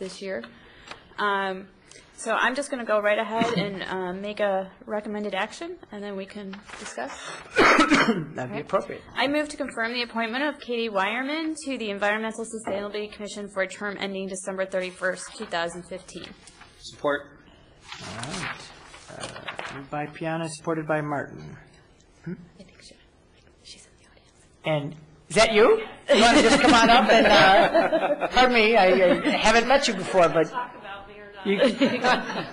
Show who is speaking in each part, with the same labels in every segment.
Speaker 1: this year. Um, So I'm just going to go right ahead and uh, make a recommended action, and then we can discuss.
Speaker 2: That'd be appropriate.
Speaker 1: I move to confirm the appointment of Katie Wireman to the Environmental Sustainability Commission for a term ending December 31st, 2015.
Speaker 3: Support.
Speaker 2: All right. Uh, Moved by Piana, supported by Martin.
Speaker 1: I think she- she's in the audience.
Speaker 2: And, is that you? You want to just come on up and, uh, pardon me, I I haven't met you before, but. You-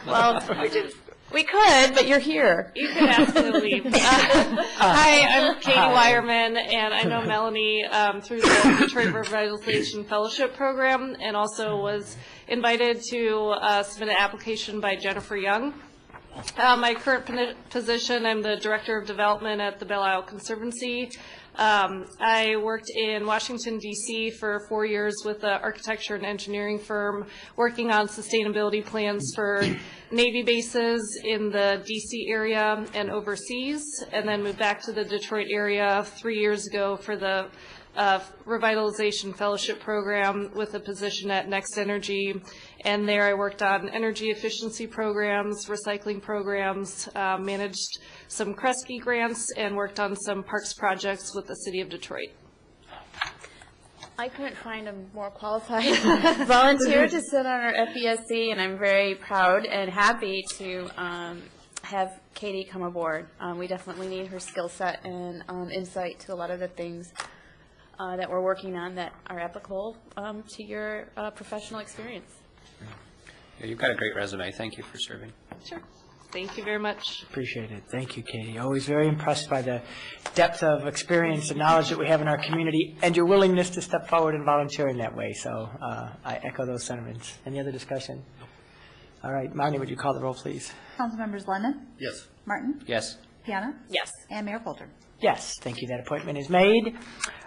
Speaker 2: Well, we did- we could, but you're here. Uh,
Speaker 4: You could absolutely. Hi, I'm Katie Wireman, and I know Melanie um, through the Detroit Revitalization Fellowship Program, and also was invited to uh, submit an application by Jennifer Young. Uh, My current poni- position, I'm the Director of Development at the Belle Isle Conservancy. Um, I worked in Washington DC for four years with an architecture and engineering firm, working on sustainability plans for Navy bases in the DC area and overseas, and then moved back to the Detroit area three years ago for the uh, revitalization fellowship program with a position at Next Energy. And there I worked on energy efficiency programs, recycling programs, uh, managed some Kresge grants, and worked on some parks projects with the city of Detroit.
Speaker 1: I couldn't find a more qualified volunteer to sit on our FESC, and I'm very proud and happy to um, have Katie come aboard. Um, We definitely need her skill set and um, insight to a lot of the things uh, that we're working on that are applicable um, to your uh, professional experience.
Speaker 3: Yeah, You've got a great resume. Thank you for serving.
Speaker 4: Sure. Thank you very much.
Speaker 2: Appreciate it. Thank you, Katie. Always very impressed by the depth of experience and knowledge that we have in our community and your willingness to step forward and volunteer in that way. So uh, I echo those sentiments. Any other discussion? All right, Marnie, would you call the roll, please?
Speaker 5: Councilmembers Lennon,
Speaker 3: Yes.
Speaker 5: Martin,
Speaker 3: Yes.
Speaker 5: Piana,
Speaker 1: Yes.
Speaker 5: and Mayor Coulter.
Speaker 2: Yes, thank you. That appointment is made.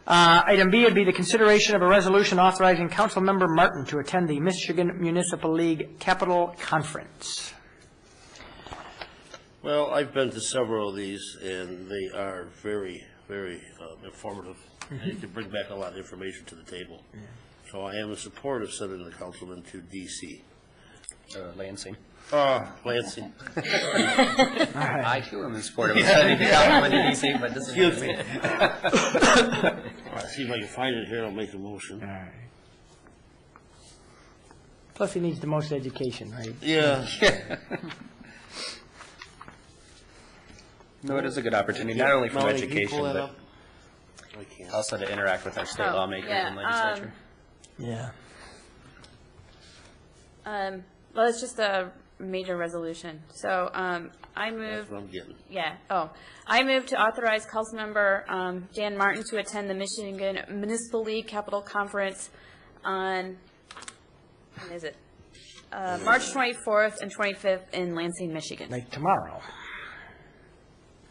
Speaker 2: Uh, Item B would be the consideration of a resolution authorizing Councilmember Martin to attend the Michigan Municipal League Capital Conference.
Speaker 6: Well, I've been to several of these, and they are very, very um, informative. And it can bring back a lot of information to the table. So I am in support of sending the councilman to DC.
Speaker 3: Uh, Lansing.
Speaker 6: Ah, Lansing,
Speaker 3: I too am in support of sending the Calhoun to DC, but this is.
Speaker 6: excuse me. I'll See if I can find it here, I'll make a motion.
Speaker 2: Plus, he needs the most education, right?
Speaker 6: Yeah,
Speaker 3: No, it is a good opportunity, not only from
Speaker 6: Melanie, can you
Speaker 3: education,
Speaker 6: pull that
Speaker 3: but
Speaker 6: up? I can't.
Speaker 3: also to interact with our state
Speaker 1: Oh,
Speaker 3: lawmakers
Speaker 1: yeah,
Speaker 3: and legislature.
Speaker 2: Yeah.
Speaker 1: Um, Well, it's just a major resolution. So um, I move
Speaker 6: That's what I'm getting.
Speaker 1: Yeah, oh. I move to authorize Councilmember um, Dan Martin to attend the Michigan Municipal League Capital Conference on, when is it? Uh, March 24th and 25th in Lansing, Michigan.
Speaker 2: Like tomorrow,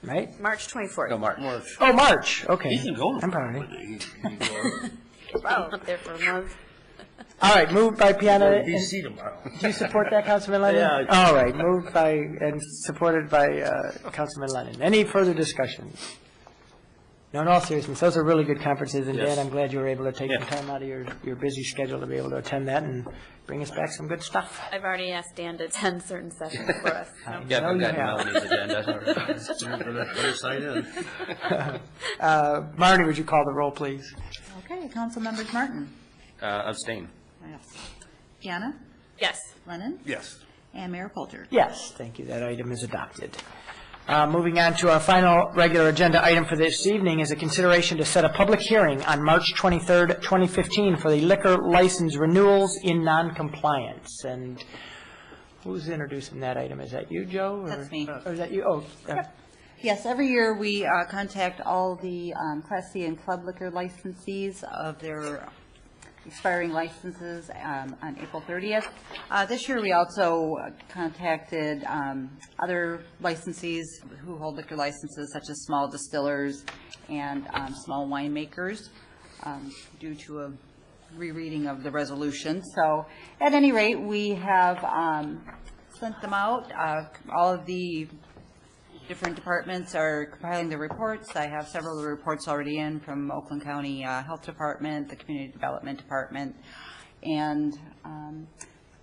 Speaker 2: right?
Speaker 1: March 24th.
Speaker 3: Go, Mark.
Speaker 6: March.
Speaker 2: Oh, March, okay.
Speaker 6: He can go.
Speaker 2: I'm sorry.
Speaker 6: He- he can go.
Speaker 1: Wow, up there for a month.
Speaker 2: All right, moved by
Speaker 6: Go
Speaker 2: Piana.
Speaker 6: to DC tomorrow.
Speaker 2: Do you support that, Councilman Lennon?
Speaker 6: Yeah,
Speaker 2: All right, moved by and supported by uh, Councilman Lennon. Any further discussion? No, in all seriousness, those are really good conferences, and Dan,
Speaker 6: Yes.
Speaker 2: I'm glad you were able to take some
Speaker 6: Yeah.
Speaker 2: time out of your, your busy schedule to be able to attend that and bring us back some good stuff.
Speaker 1: I've already asked Dan to attend certain sessions for us. so.
Speaker 3: Yeah,
Speaker 2: No,
Speaker 3: I've
Speaker 2: you
Speaker 3: got
Speaker 2: have.
Speaker 3: Melanie's agenda.
Speaker 6: Better sign in.
Speaker 2: Uh, Marty, would you call the roll, please?
Speaker 5: Okay, Councilmembers Martin,
Speaker 3: Uh, Abstain.
Speaker 5: Piana,
Speaker 1: Yes.
Speaker 5: Lennon,
Speaker 6: Yes.
Speaker 5: and Mayor Coulter.
Speaker 2: Yes, thank you, that item is adopted. Uh, Moving on to our final regular agenda item for this evening is a consideration to set a public hearing on March 23rd, 2015 for the liquor license renewals in noncompliance. And who's introducing that item? Is that you, Joe? or-
Speaker 5: That's me.
Speaker 2: Or is that you? Oh, uh,
Speaker 5: Yes, every year we uh, contact all the um, Class C and Club Liquor licensees of their expiring licenses um, on April 30th. Uh, This year, we also contacted um, other licensees who hold liquor licenses, such as small distillers and um, small winemakers, um, due to a rereading of the resolution. So at any rate, we have um, sent them out. Uh, All of the different departments are compiling their reports. I have several of the reports already in from Oakland County uh, Health Department, the Community Development Department, and um,